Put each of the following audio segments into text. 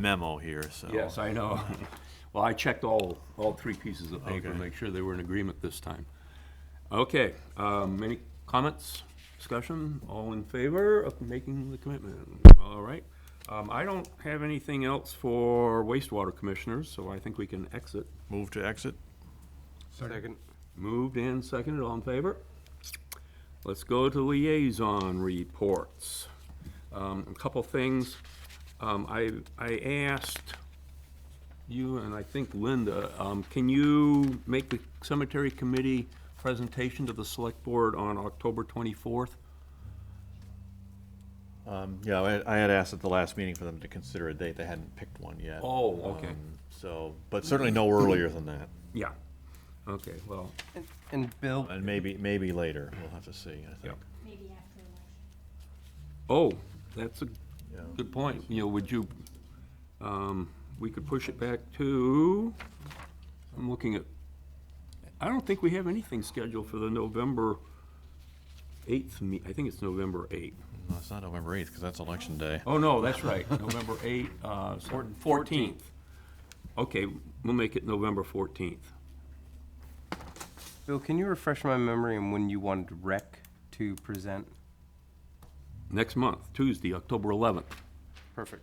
memo here, so. Yes, I know. Well, I checked all, all three pieces of paper, to Okay. make sure they were in agreement this time. Okay, um, any comments, discussion? All in favor of making the commitment? All right. Um, I don't have anything else for wastewater commissioners, so I think we can exit. Move to exit? Second. Moved and seconded, all in favor? Let's go to liaison reports. Um, A couple things. Um, I, I asked you and I think Linda, um, can you make the cemetery committee presentation to the select board on October 24th? Um, Yeah, I- I had asked at the last meeting for them to consider a date. They hadn't picked one yet. Oh, okay. Um, So, but certainly no earlier than that, Yeah. Okay, well, And Bill, and maybe, maybe later. We'll have to see, I think. Maybe after election. oh, that's a Yeah. good point. You know, would you, um, we could push it back to, I'm looking at, I don't think we have anything scheduled for the November 8th, me- I think it's November 8th. No, It's not November 8th, because that's election day. Oh, no, that's right, November 8th, uh, so- 14th. Okay, we'll make it November 14th. Bill, can you refresh my memory on when you wanted rec to present? Next month, Tuesday, October 11th. Perfect.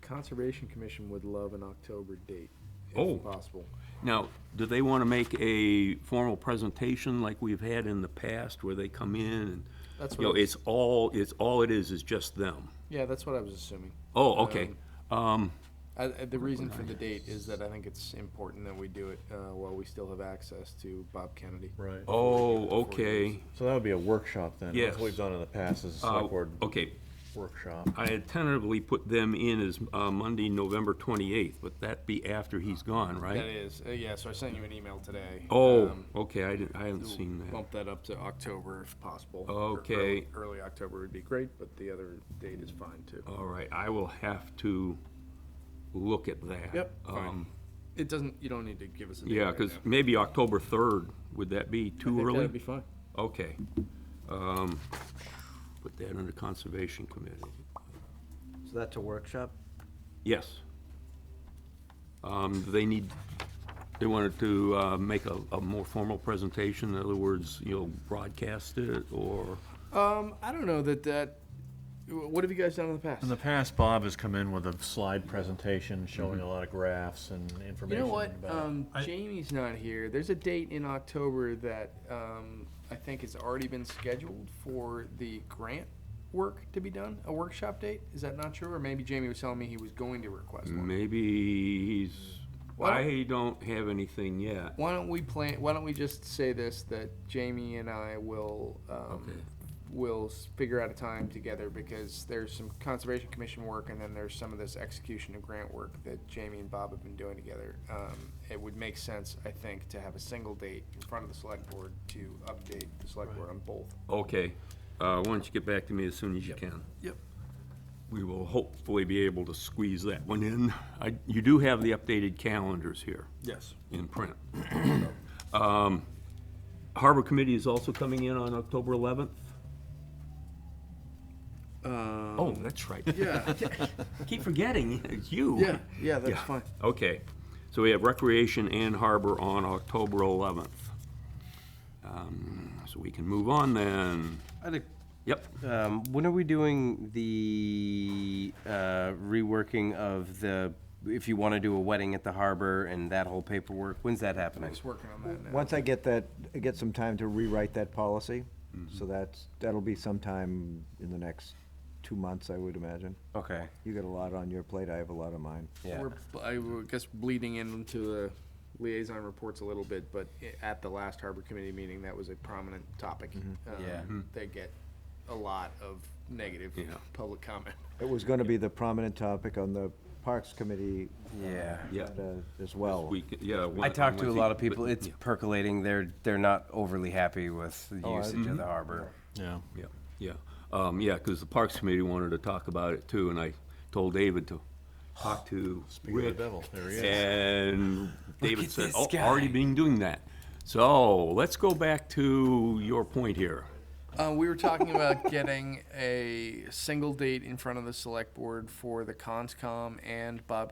Conservation Commission would love an October date, Oh. if possible. Now, do they want to make a formal presentation like we've had in the past, where they come in and, That's you know, what- it's all, it's, all it is, is just them? Yeah, that's what I was assuming. Oh, okay. Um, I- I- The reason for the date is that I think it's important that we do it uh, while we still have access to Bob Kennedy. Right. Oh, okay. So that would be a workshop then. That's Yes. what we've done in the past, is a Uh, select board Okay, workshop. I had tentatively put them in as uh, Monday, November 28th, but that be after he's gone, That right? is, uh, yeah, so I sent you an email today. Oh, um, okay, I didn't, I haven't seen that. Bump that up to October if possible. Or Okay. early- Early October would be great, but the other date is fine too. All right, I will have to look at that. Yep, fine. Um, It doesn't, you don't need to give us a date Yeah, right because now. I maybe October 3rd, would that be too think early? That'd be fine. Okay. Um, Put that under Conservation Committee. So that's a workshop? Yes. Um, They need, they wanted to uh, make a a more formal presentation, in other words, you know, broadcast it, or, Um, I don't know that that, wh- what have you guys done in the past? In the past, Bob has come in with a slide presentation showing Mm-hmm. a lot of graphs and You information. know what? about- Um, Jamie's not here. There's a date in October that um, I think has already been scheduled for the grant work to be done. A workshop date? Is that not true? Or maybe Jamie was telling me he was going to request one. maybe he's, Why don't- I don't have anything yet. Why don't we plan? Why don't we just say this that Jamie and I will um, Okay. will s- figure out a time together because there's some conservation commission work and then there's some of this execution of grant work that Jamie and Bob have been doing together. Um, it would make sense, I think, to have a single date in front of the select board to update the select board on both. Okay, Uh, why don't you get back to me as soon as you can? Yep. We will hopefully be able to squeeze that one in. I- You do have the updated calendars here. Yes. in print. Um, Harbor Committee is also coming in on October 11th. Oh, that's right. Yeah, Keep forgetting, it's you. yeah, yeah, that's Yeah. fine. Okay, so we have Recreation and Harbor on October 11th. Um, So we can move on then. Yep, Um, when are we doing the, uh, reworking of the, if you wanna do a wedding at the harbor and that whole paperwork, when's that happening? Just working on that now. Once I get that, get some time to rewrite that policy, so that's, that'll be sometime in the next two months, I would imagine. Okay, You got a lot on your plate, I have a lot on mine. yeah. We're, b- I would guess, bleeding into the liaison reports a little bit, but i- at the last harbor committee meeting, that was a prominent topic. Um, Yeah. They get a lot of negative Yeah. public comment. It was gonna be the prominent topic on the Parks Committee. uh, Yeah. Yeah. agenda As well. we, can- yeah. I one- talked I to a think- lot of people, but- it's yeah, percolating, they're, they're not overly happy with the Oh, I- usage of the harbor. Yeah. Yeah, yeah, Um, yeah, because the Parks Committee wanted to talk about it too, and I told David to talk to Speaking of the Rick devil, there he is. And David at said, this oh, guy." already been doing that. So let's go back to your point here. Uh, we were talking about getting a single date in front of the select board for the conscom and Bob